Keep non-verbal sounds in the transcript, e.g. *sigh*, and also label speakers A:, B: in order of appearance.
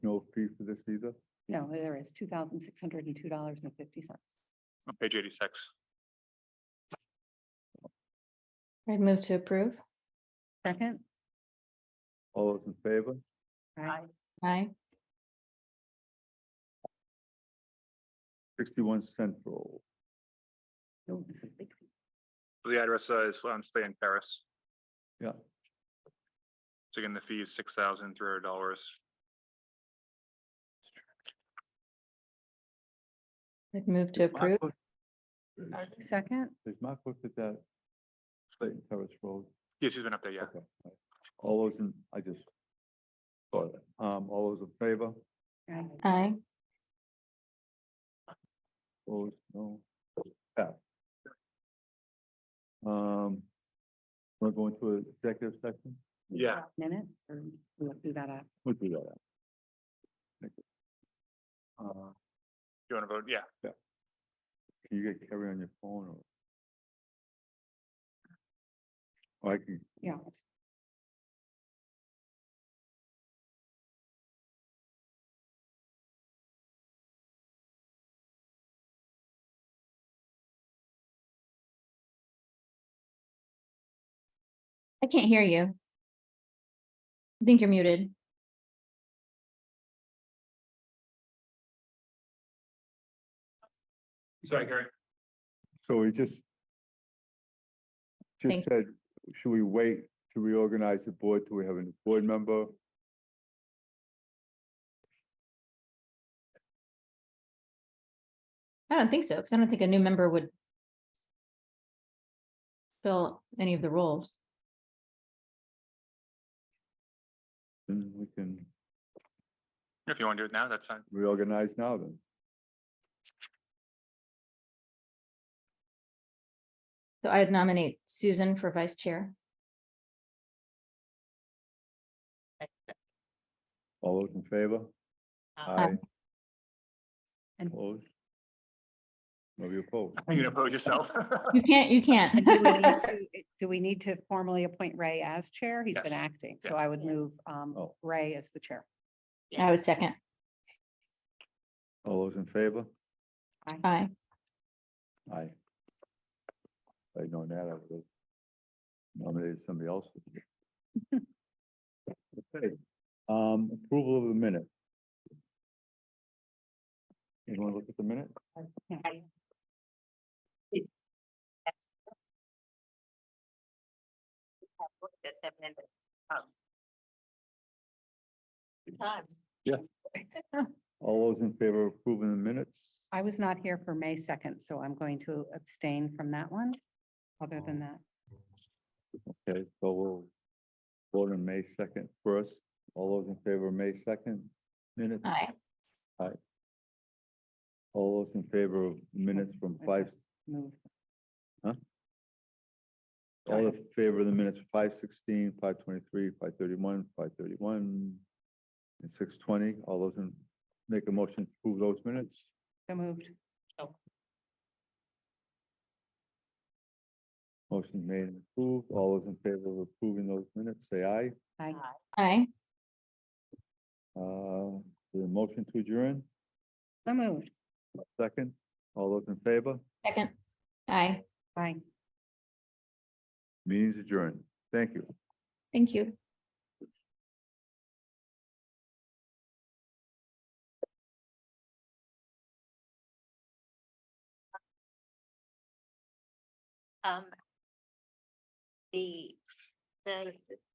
A: no fee for this either?
B: No, there is two thousand six hundred and two dollars and fifty cents.
C: on page eighty-six.
D: I'd move to approve.
B: Second?
A: All those in favor?
B: Aye.
D: Aye.
A: Sixty-one Central,
B: No, this is big.
C: So The address uh, is on Stay in Paris.
A: yeah.
C: So again, the fee is six thousand three hundred dollars.
D: I'd move to approve.
B: Second?
A: Is Mark looked at that Clayton Terrace Road?
C: Yes, he's been up there, yeah.
A: Okay. all right. All those in, I just saw that. Um, all those in favor?
B: Aye.
D: Aye.
A: Opposed, no. Pass. Um, we're going to an executive section?
C: Yeah.
B: Minutes, or we'll do that up.
A: We'll do that. Thank you. Uh,
C: You want to vote? Yeah.
A: Can you get Carrie on your phone or? Or I can,
B: Yeah.
D: I can't hear you. I think you're muted.
C: Sorry, Gary.
A: so we just. Just
D: Thank-
A: said, should we wait to reorganize the board till we have a new board member?
D: I don't think so, because I don't think a new member would fill any of the roles.
A: Then we can
C: If you want to do it now, that's fine.
A: reorganize now then.
D: So I'd nominate Susan for vice chair.
A: All those in favor?
D: Aye.
B: And-
A: Opposed? Nobody opposed?
C: You can oppose yourself. *laughs*
D: You can't, you can't.
B: Do we *laughs* need to- do we need to formally appoint Ray as chair? He's
C: Yes.
B: been acting, so
C: Yeah.
B: I would move um,
A: Oh.
B: Ray as the chair.
D: I would second.
A: All those in favor?
D: Aye.
A: Aye. If I'd known that, I would have nominated somebody else. Okay, um, approval of the minute. You want to look at the minute?
B: Yeah.
E: at them and it's, um, good times.
A: All those in favor of approving the minutes?
B: I was not here for May second, so I'm going to abstain from that one. Other than
C: Oh.
B: that,
A: Okay, so we'll vote on May second first. All those in favor of May second minutes?
D: Aye.
A: All those in favor of minutes from five,
B: move.
A: all in favor of the minutes, five sixteen, five twenty-three, five thirty-one, five thirty-one, and six twenty, all those in, make a motion to approve those minutes?
B: So moved.
A: Motion made and approved, all those in favor of approving those minutes, say aye.
B: Aye.
E: Aye.
D: Aye.
A: Uh, the motion to adjourn,
B: So moved.
A: second, all those in favor,
D: Second. Aye.
B: Aye.
A: meeting's adjourned, thank you.
D: Thank you.
E: Um, the, the